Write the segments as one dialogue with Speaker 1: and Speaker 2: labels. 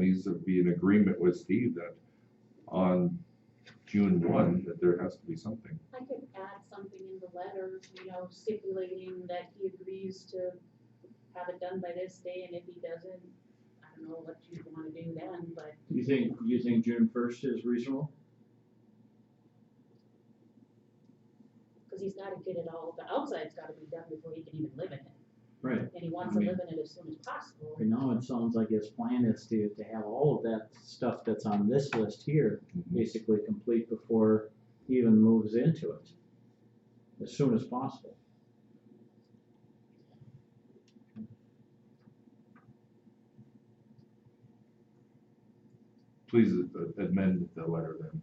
Speaker 1: needs to be an agreement with Steve that on June one, that there has to be something.
Speaker 2: I could add something in the letter, you know, stipulating that he agrees to have it done by this day, and if he doesn't, I don't know what you wanna do then, but
Speaker 3: You think, you think June first is reasonable?
Speaker 2: Because he's gotta get it all, the outside's gotta be done before he can even live in it,
Speaker 3: Right.
Speaker 2: and he wants
Speaker 1: Mm-hmm.
Speaker 2: to live in it as soon as possible.
Speaker 3: Right now, it sounds like his plan is to, to have all of that stuff that's on this list here basically complete before he even moves into it. As soon as possible.
Speaker 1: Please uh, amend the letter then.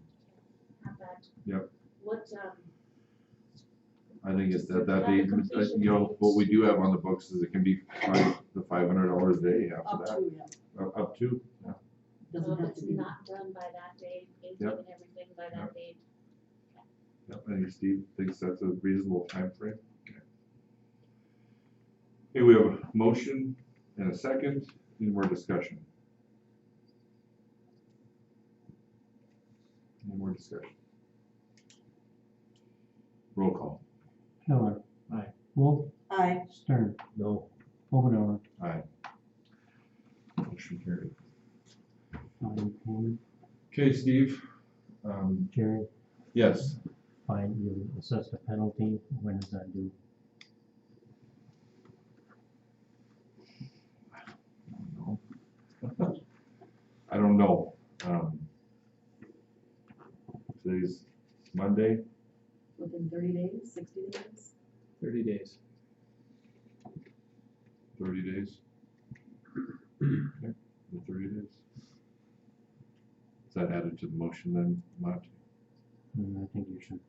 Speaker 2: Have that.
Speaker 1: Yep.
Speaker 2: What, um,
Speaker 1: I think it's that,
Speaker 2: Just
Speaker 1: that,
Speaker 2: have the
Speaker 1: they-
Speaker 2: completion
Speaker 1: you know, what we do have on the books is it can be five, the five hundred dollars a day after
Speaker 4: Up
Speaker 1: that,
Speaker 4: to, yeah,
Speaker 1: Uh, up to.
Speaker 2: so
Speaker 4: doesn't
Speaker 2: if
Speaker 4: have to
Speaker 2: it's
Speaker 4: be.
Speaker 2: uh, not done by that date, it's
Speaker 1: Yep.
Speaker 2: given everything by that date,
Speaker 1: Yep, I think Steve thinks that's a reasonable timeframe. Okay, Okay, we have a motion and a second, any more discussion? Any more discussion? Roll call.
Speaker 5: Heller.
Speaker 3: Aye.
Speaker 5: Wolf.
Speaker 4: Aye,
Speaker 5: Stern.
Speaker 1: No.
Speaker 5: Overdauer.
Speaker 1: Aye. Motion carried.
Speaker 5: Donnie Payne.
Speaker 1: Okay, Steve, um,
Speaker 5: Jerry,
Speaker 1: yes,
Speaker 5: fine, you assessed a penalty. When is that due?
Speaker 1: I don't know, um. Today's Monday,
Speaker 4: within thirty days, sixty days,
Speaker 3: Thirty days.
Speaker 1: thirty days. Okay, the Thirty days. Is that added to the motion then, Matt?
Speaker 5: And Mm, I think you should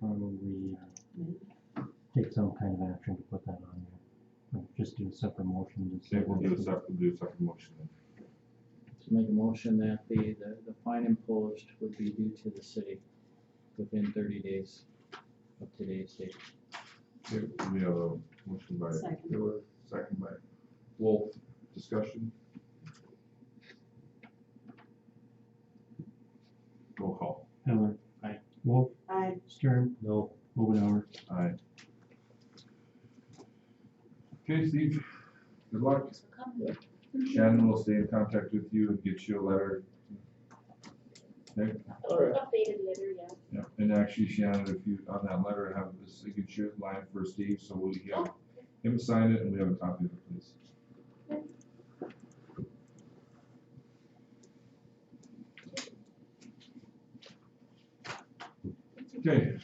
Speaker 5: probably uh, take some kind of action to put that on there. Or Just do a separate motion. to say-
Speaker 1: Okay, we'll do a separate, do a separate motion then.
Speaker 3: To make a motion that the, the, the fine imposed would be due to the city within thirty days of today's date.
Speaker 1: Okay, we have a motion by
Speaker 4: Second.
Speaker 1: Miller, second by Wolf, discussion. Roll call.
Speaker 5: Heller.
Speaker 3: Aye.
Speaker 5: Wolf.
Speaker 4: aye,
Speaker 5: Stern.
Speaker 1: No.
Speaker 5: Overdauer.
Speaker 1: Aye. Okay, Steve, good luck.
Speaker 2: thanks for coming.
Speaker 1: Shannon will stay in contact with you and get you a letter. Okay,
Speaker 3: Alright.
Speaker 2: Updated letter, yeah.
Speaker 1: yeah, and actually Shannon, if you, on that letter, have the signature line for Steve, so we have him sign it and we have a copy of it, please. Okay,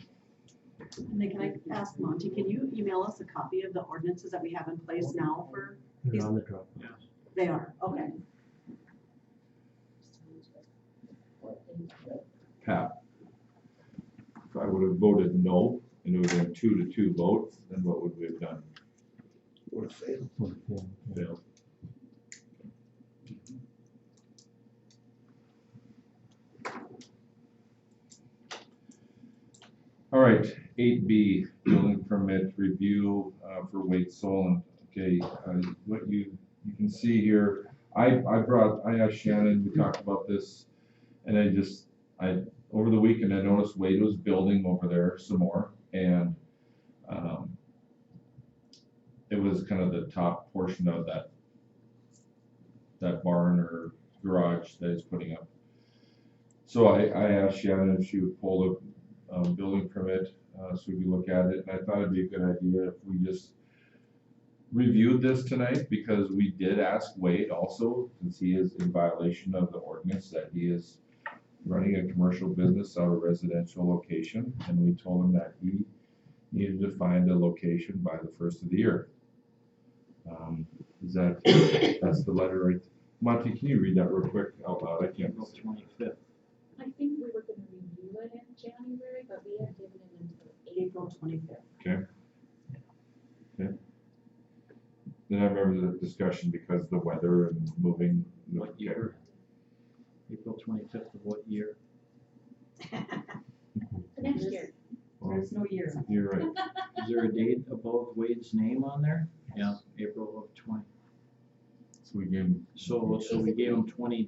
Speaker 4: and then can I ask Monty, can you email us a copy of the ordinances that we have in place now for,
Speaker 5: They're
Speaker 4: He's-
Speaker 5: on the drop.
Speaker 4: they are, okay.
Speaker 1: Pat. If I would have voted no, and it would have been two to two votes, then what would we have done? Would have failed.
Speaker 5: Would have been, yeah.
Speaker 1: Failed. All right, eight B, building permit review, uh, for Wade Solon. Okay, uh, what you, you can see here, I, I brought, I asked Shannon, we talked about this, and I just, I, over the weekend, I noticed Wade was building over there some more, and, um, it was kind of the top portion of that that barn or garage that he's putting up. So I, I asked Shannon if she would pull the um, building permit, uh, so we could look at it, and I thought it'd be a good idea if we just reviewed this tonight, because we did ask Wade also, since he is in violation of the ordinance, that he is running a commercial business out of residential location, and we told him that he needed to find a location by the first of the year. Um, is that, that's the letter right, Monty, can you read that real quick out loud? I can't.
Speaker 3: April twenty-fifth.
Speaker 2: I think we were gonna review it in January, but we have given it until April.
Speaker 4: April twenty-fifth.
Speaker 1: Then I remember the discussion because of the weather and moving.
Speaker 3: What year? April twenty-fifth of what year?
Speaker 2: The next year.
Speaker 1: Well,
Speaker 4: There's no year.
Speaker 1: You're right.
Speaker 3: Is there a date above Wade's name on there? Yeah. April of twenty.
Speaker 1: we gave them
Speaker 3: So, so we gave them twenty